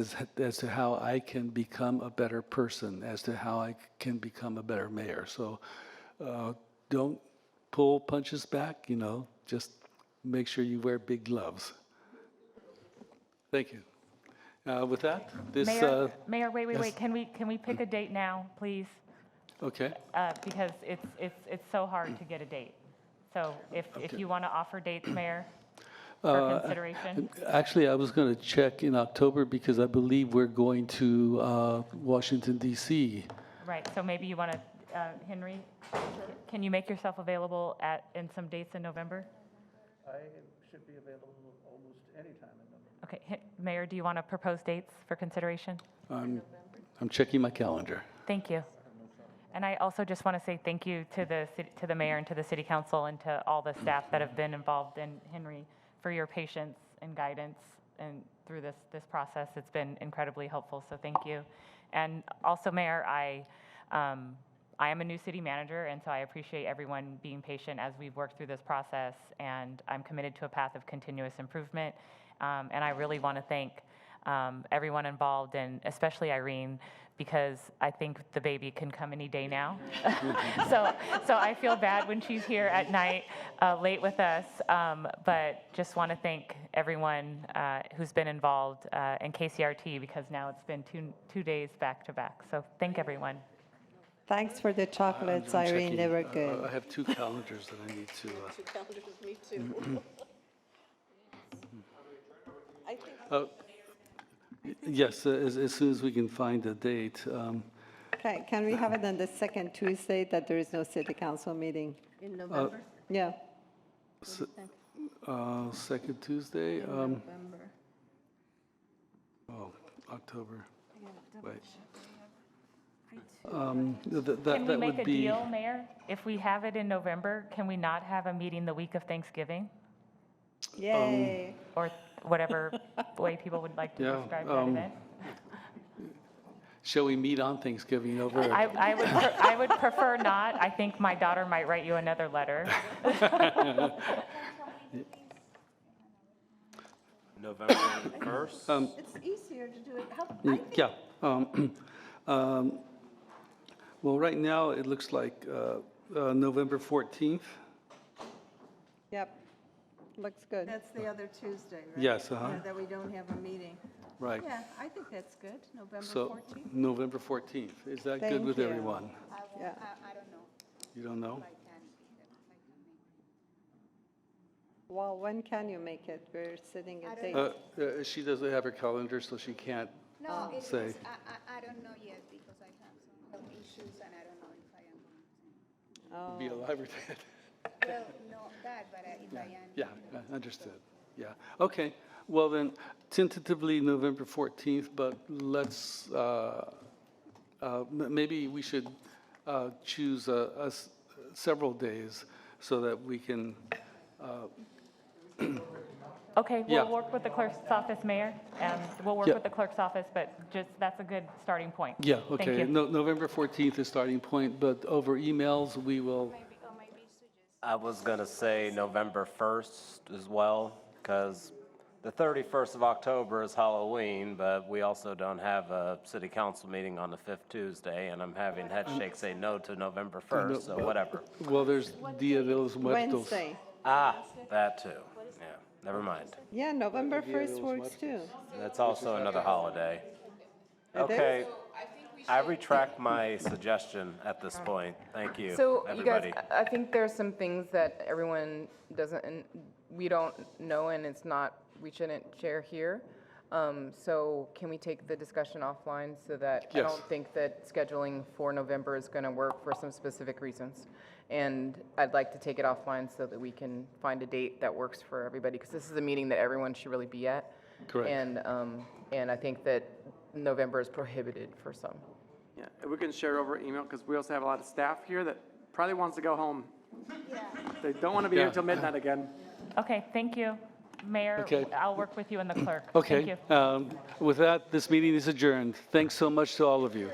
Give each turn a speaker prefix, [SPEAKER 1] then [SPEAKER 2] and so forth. [SPEAKER 1] as, as to how I can become a better person, as to how I can become a better mayor. So uh, don't pull punches back, you know, just make sure you wear big gloves. Thank you. Uh, With that, this, uh,
[SPEAKER 2] Mayor, Mayor, wait, wait, wait, can we, can we pick a date now, please?
[SPEAKER 1] okay,
[SPEAKER 2] Uh, Because it's, it's, it's so hard to get a date. So if, if
[SPEAKER 1] Okay. Uh,
[SPEAKER 2] you want to offer dates, Mayor, for consideration,
[SPEAKER 1] actually, I was going to check in October because I believe we're going to uh, Washington DC.
[SPEAKER 2] right, so maybe you want to, uh, Henry, can you make yourself available at, in some dates in November?
[SPEAKER 3] I should be available almost any time in November.
[SPEAKER 2] Okay, Hen- Mayor, do you want to propose dates for consideration?
[SPEAKER 1] I'm, I'm checking my calendar.
[SPEAKER 2] Thank you. And I also just want to say thank you to the, cit- to the mayor and to the city council and to all the staff that have been involved in Henry for your patience and guidance and through this, this process. It's been incredibly helpful, so thank you. And also, Mayor, I, um, I am a new city manager, and so I appreciate everyone being patient as we've worked through this process, and I'm committed to a path of continuous improvement. Um, And I really want to thank um, everyone involved, and especially Irene, because I think the baby can come any day now. so, so I feel bad when she's here at night, uh, late with us. Um, but just want to thank everyone uh, who's been involved uh, in KCRT because now it's been two two days back to back. So thank everyone.
[SPEAKER 4] Thanks for the chocolates,
[SPEAKER 1] I'm
[SPEAKER 4] Irene.
[SPEAKER 1] checking.
[SPEAKER 4] They were
[SPEAKER 1] I- I-
[SPEAKER 4] good.
[SPEAKER 1] I have two calendars that I need to, uh,
[SPEAKER 5] Two calendars, me too. I think
[SPEAKER 1] yes, uh, as, as soon as we can find a date. um,
[SPEAKER 4] Okay, can we have it on the second Tuesday that there is no city council meeting?
[SPEAKER 6] In November?
[SPEAKER 1] um,
[SPEAKER 4] Yeah,
[SPEAKER 1] uh, Second Tuesday, um,
[SPEAKER 6] November.
[SPEAKER 1] oh, October. Wait. Um, th- th- That,
[SPEAKER 2] Can we
[SPEAKER 1] that
[SPEAKER 2] make a
[SPEAKER 1] would be,
[SPEAKER 2] deal, Mayor? If we have it in November, can we not have a meeting the week of Thanksgiving
[SPEAKER 4] yay.
[SPEAKER 2] or whatever way people would like to
[SPEAKER 1] Yeah,
[SPEAKER 2] describe that
[SPEAKER 1] um,
[SPEAKER 2] event?
[SPEAKER 1] shall we meet on Thanksgiving over?
[SPEAKER 2] I, I would, pre- I would prefer not. I think my daughter might write you another letter.
[SPEAKER 7] November 1st.
[SPEAKER 8] Um,
[SPEAKER 6] It's easier to do it, how,
[SPEAKER 1] Mm, Yeah. um, um, Well, right now, it looks like uh, uh, November 14th.
[SPEAKER 4] Yep, looks good.
[SPEAKER 6] that's the other Tuesday, right?
[SPEAKER 1] Yes, uh-huh.
[SPEAKER 6] Yeah, That we don't have a meeting.
[SPEAKER 1] Right.
[SPEAKER 6] Yeah, I think that's good, November
[SPEAKER 1] So
[SPEAKER 6] 14th.
[SPEAKER 1] November 14th. Is that good
[SPEAKER 4] Thank
[SPEAKER 1] with
[SPEAKER 4] you.
[SPEAKER 1] everyone?
[SPEAKER 4] Yeah,
[SPEAKER 1] You don't know?
[SPEAKER 4] well, when can you make it? We're sitting at
[SPEAKER 1] Uh,
[SPEAKER 4] date.
[SPEAKER 1] uh, She doesn't have her calendar, so she can't.
[SPEAKER 9] No, it is,
[SPEAKER 1] say.
[SPEAKER 9] I, I, I don't know yet because I have some health issues and I don't know if I am.
[SPEAKER 4] Oh,
[SPEAKER 1] be
[SPEAKER 2] Oh.
[SPEAKER 1] alive or dead.
[SPEAKER 9] Well, no, that, but I- if I am.
[SPEAKER 1] Yeah, I understood. Yeah, okay. Well, then tentatively November 14th, but let's, uh, uh, m- maybe we should uh, choose a- a s- several days so that we can,
[SPEAKER 2] Okay,
[SPEAKER 1] Yeah.
[SPEAKER 2] we'll work with the clerk's office, Mayor, and we'll work
[SPEAKER 1] Yeah.
[SPEAKER 2] with the clerk's office, but just, that's a good starting point.
[SPEAKER 1] yeah,
[SPEAKER 2] Thank
[SPEAKER 1] okay.
[SPEAKER 2] you.
[SPEAKER 1] No- November 14th is starting point, but over emails, we will,
[SPEAKER 7] I was going to say November 1st as well, because the 31st of October is Halloween, but we also don't have a city council meeting on the fifth Tuesday, and I'm having head shake say no to November 1st, so whatever.
[SPEAKER 1] well, there's Dia de los Muertos.
[SPEAKER 4] Wednesday.
[SPEAKER 7] Ah, that too. Yeah, never mind.
[SPEAKER 4] Yeah, November 1st works too.
[SPEAKER 7] That's also another holiday. Okay. I retract my suggestion at this point. Thank you,
[SPEAKER 8] So you guys,
[SPEAKER 7] everybody.
[SPEAKER 8] I- I think there's some things that everyone doesn't, and we don't know, and it's not, we shouldn't share here. Um, So can we take the discussion offline so that, I
[SPEAKER 1] Yes.
[SPEAKER 8] don't think that scheduling for November is going to work for some specific reasons. And I'd like to take it offline so that we can find a date that works for everybody, because this is a meeting that everyone should really be at.
[SPEAKER 1] Correct.
[SPEAKER 8] And, um, and I think that November is prohibited for some.
[SPEAKER 10] Yeah, and we can share over email, because we also have a lot of staff here that probably wants to go home. They don't want to be here
[SPEAKER 1] Yeah.
[SPEAKER 10] till midnight again.
[SPEAKER 2] Okay, thank you. Mayor,
[SPEAKER 1] Okay.
[SPEAKER 2] I'll work with you and the clerk. Thank
[SPEAKER 1] Okay,
[SPEAKER 2] you.
[SPEAKER 1] um, with that, this meeting is adjourned. Thanks so much to all of you.